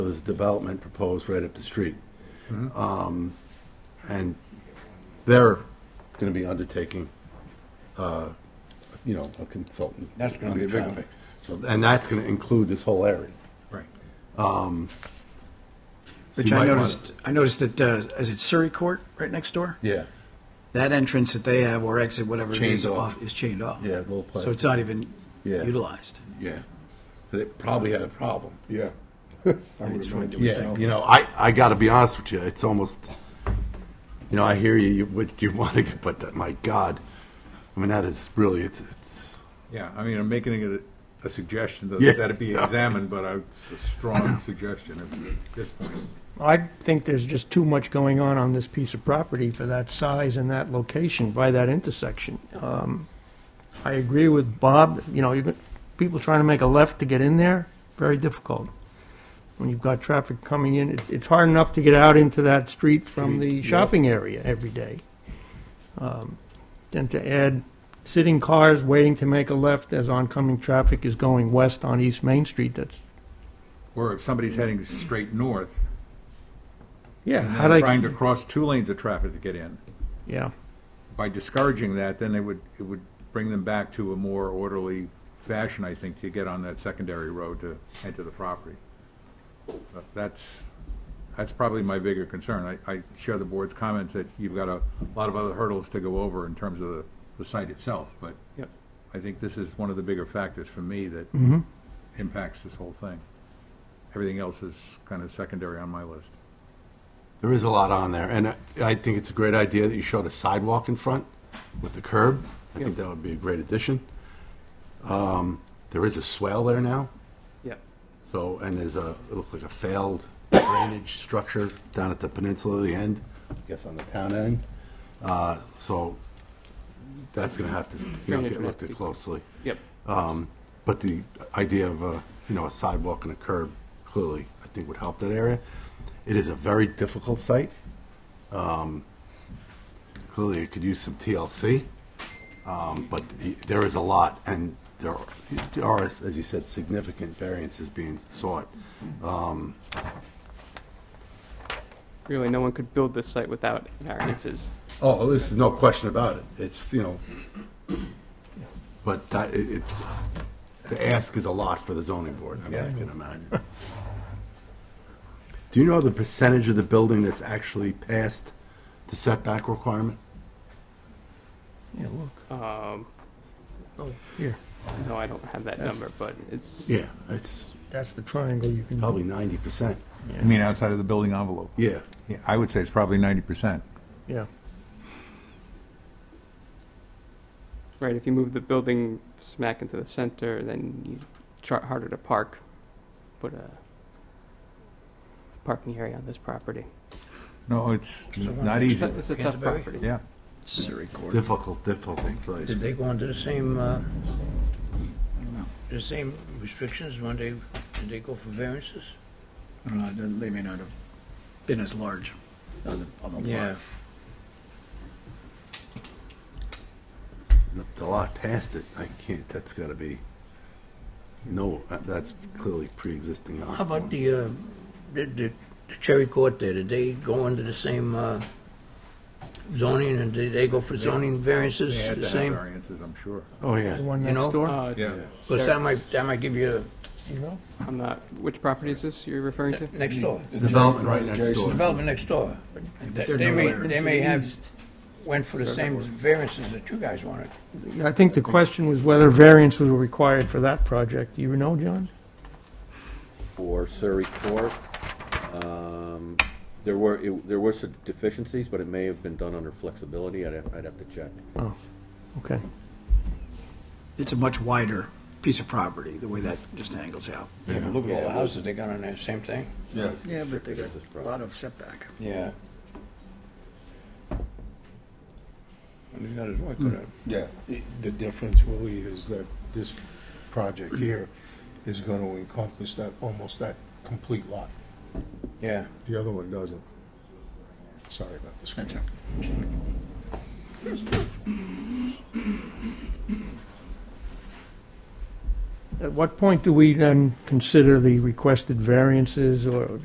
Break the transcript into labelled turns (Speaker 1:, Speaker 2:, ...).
Speaker 1: There's development proposed right up the street. Um, And they're going to be undertaking, uh, you know, a consultant.
Speaker 2: That's gonna be a big
Speaker 1: undertaking.
Speaker 2: thing.
Speaker 1: So, and that's going to include this whole area.
Speaker 2: Right.
Speaker 1: So
Speaker 3: Which
Speaker 1: you
Speaker 3: I
Speaker 1: might wanna-
Speaker 3: noticed, I noticed that, uh, is it Surrey Court right next door?
Speaker 1: Yeah,
Speaker 3: That entrance that they have or exit, whatever it
Speaker 1: Chained
Speaker 3: is,
Speaker 1: off.
Speaker 3: off, is chained off.
Speaker 1: Yeah, little place.
Speaker 3: So it's not even
Speaker 1: Yeah.
Speaker 3: utilized.
Speaker 1: yeah. They probably had a problem.
Speaker 4: Yeah. I would
Speaker 3: It's what
Speaker 4: imagine.
Speaker 3: you would
Speaker 1: Yeah,
Speaker 3: think.
Speaker 1: you know, I, I got to be honest with you, it's almost, you know, I hear you, you, what you want to get, but that, my God, I mean, that is really, it's, it's,
Speaker 4: Yeah, I mean, I'm making it a- a suggestion that
Speaker 1: Yeah.
Speaker 4: that it be examined, but I- it's a strong suggestion at this point.
Speaker 5: I think there's just too much going on on this piece of property for that size and that location by that intersection. Um, I agree with Bob, you know, you're, people trying to make a left to get in there, very difficult. When you've got traffic coming in, it's, it's hard enough to get out into that street from the shopping area every day. Um, Then to add sitting cars waiting to make a left as oncoming traffic is going west on East Main Street, that's,
Speaker 4: Or if somebody's heading straight north
Speaker 5: yeah,
Speaker 4: and
Speaker 5: how
Speaker 4: they're
Speaker 5: do
Speaker 4: trying to
Speaker 5: I,
Speaker 4: cross two lanes of traffic to get in,
Speaker 5: yeah.
Speaker 4: by discouraging that, then they would, it would bring them back to a more orderly fashion, I think, to get on that secondary road to enter the property. But That's, that's probably my bigger concern. I, I share the board's comments that you've got a lot of other hurdles to go over in terms of the, the site itself, but
Speaker 5: Yep.
Speaker 4: I think this is one of the bigger factors for me that impacts this whole thing. Everything else is kind of secondary on my list.
Speaker 1: there is a lot on there. And I, I think it's a great idea that you showed a sidewalk in front with the curb. I think that would be a great addition. Um, there is a swale there now.
Speaker 5: Yeah.
Speaker 1: So, and there's a, it looked like a failed drainage structure down at the peninsula, the end, I guess on the town end. Uh, so that's gonna have to, you know,
Speaker 6: Drainage
Speaker 1: get
Speaker 6: will
Speaker 1: looked
Speaker 6: have to
Speaker 1: at
Speaker 6: be-
Speaker 1: closely.
Speaker 6: Yep.
Speaker 1: Um, but the idea of a, you know, a sidewalk and a curb clearly, I think would help that area. It is a very difficult site. Um, clearly it could use some TLC. Um, but the- there is a lot and there are- there are, as you said, significant variances being sought.
Speaker 6: Really, no one could build this site without variances.
Speaker 1: Oh, this is no question about it. It's, you know, but that, it- it's, the ask is a lot for the zoning board, I mean, I can imagine. Do you know the percentage of the building that's actually past the setback requirement?
Speaker 5: Yeah, look.
Speaker 6: Um,
Speaker 5: Oh, here,
Speaker 6: no, I don't have that number, but it's
Speaker 1: Yeah, it's
Speaker 5: that's the triangle you can.
Speaker 1: probably ninety percent.
Speaker 4: I mean, outside of the building envelope?
Speaker 1: Yeah,
Speaker 4: Yeah, I would say it's probably ninety percent.
Speaker 5: Yeah,
Speaker 6: right. If you move the building smack into the center, then you chart harder to park. Put a parking area on this property.
Speaker 4: No, it's n- not easy.
Speaker 6: It's a tough
Speaker 2: Canterbury?
Speaker 6: property.
Speaker 4: Yeah.
Speaker 3: Surrey Court.
Speaker 1: difficult, difficult site.
Speaker 2: Did they go under the same, uh, the same restrictions when they, did they go for variances?
Speaker 3: I don't know, it doesn't- they may not have been as large on the, on the lot.
Speaker 1: The- The lot past it, I can't, that's gotta be, no, that- that's clearly pre-existing.
Speaker 2: How about the, uh, the- the the Cherry Court there, did they go under the same uh, zoning, and did they go for zoning variances
Speaker 4: They had
Speaker 2: the
Speaker 4: to have
Speaker 2: same?
Speaker 4: variances, I'm sure.
Speaker 1: Oh,
Speaker 5: the
Speaker 1: yeah.
Speaker 5: one
Speaker 2: You know?
Speaker 5: next door,
Speaker 6: Uh,
Speaker 4: Yeah.
Speaker 2: Because that might, that might give you
Speaker 5: you know?
Speaker 6: I'm not. Which property is this you're referring to?
Speaker 2: a next door,
Speaker 1: Development right next
Speaker 4: Mm.
Speaker 1: door.
Speaker 2: development next door. They
Speaker 3: they're
Speaker 2: they may,
Speaker 3: nowhere.
Speaker 2: they may have, went for the same variances that you guys wanted.
Speaker 5: Yeah, I think the question was whether variances were required for that project. Do you know, John?
Speaker 7: for Surrey Court. Um, There were, it- there were some deficiencies, but it may have been done under flexibility. I'd have, I'd have to check.
Speaker 5: Okay.
Speaker 3: It's a much wider piece of property, the way that just angles out.
Speaker 2: Yeah, but look at all
Speaker 7: Yeah,
Speaker 2: the
Speaker 7: it
Speaker 2: houses they got on there, same thing.
Speaker 4: Yeah.
Speaker 3: Yeah, but they got
Speaker 7: This is
Speaker 3: a
Speaker 7: probably-
Speaker 3: lot of setback.
Speaker 2: Yeah. And they got as well, could have.
Speaker 8: Yeah, the- the difference, Willie, is that this project here is going to encompass that, almost that complete lot.
Speaker 2: Yeah.
Speaker 8: The other one doesn't. Sorry about this.
Speaker 3: That's it.
Speaker 5: At what point do we then consider the requested variances or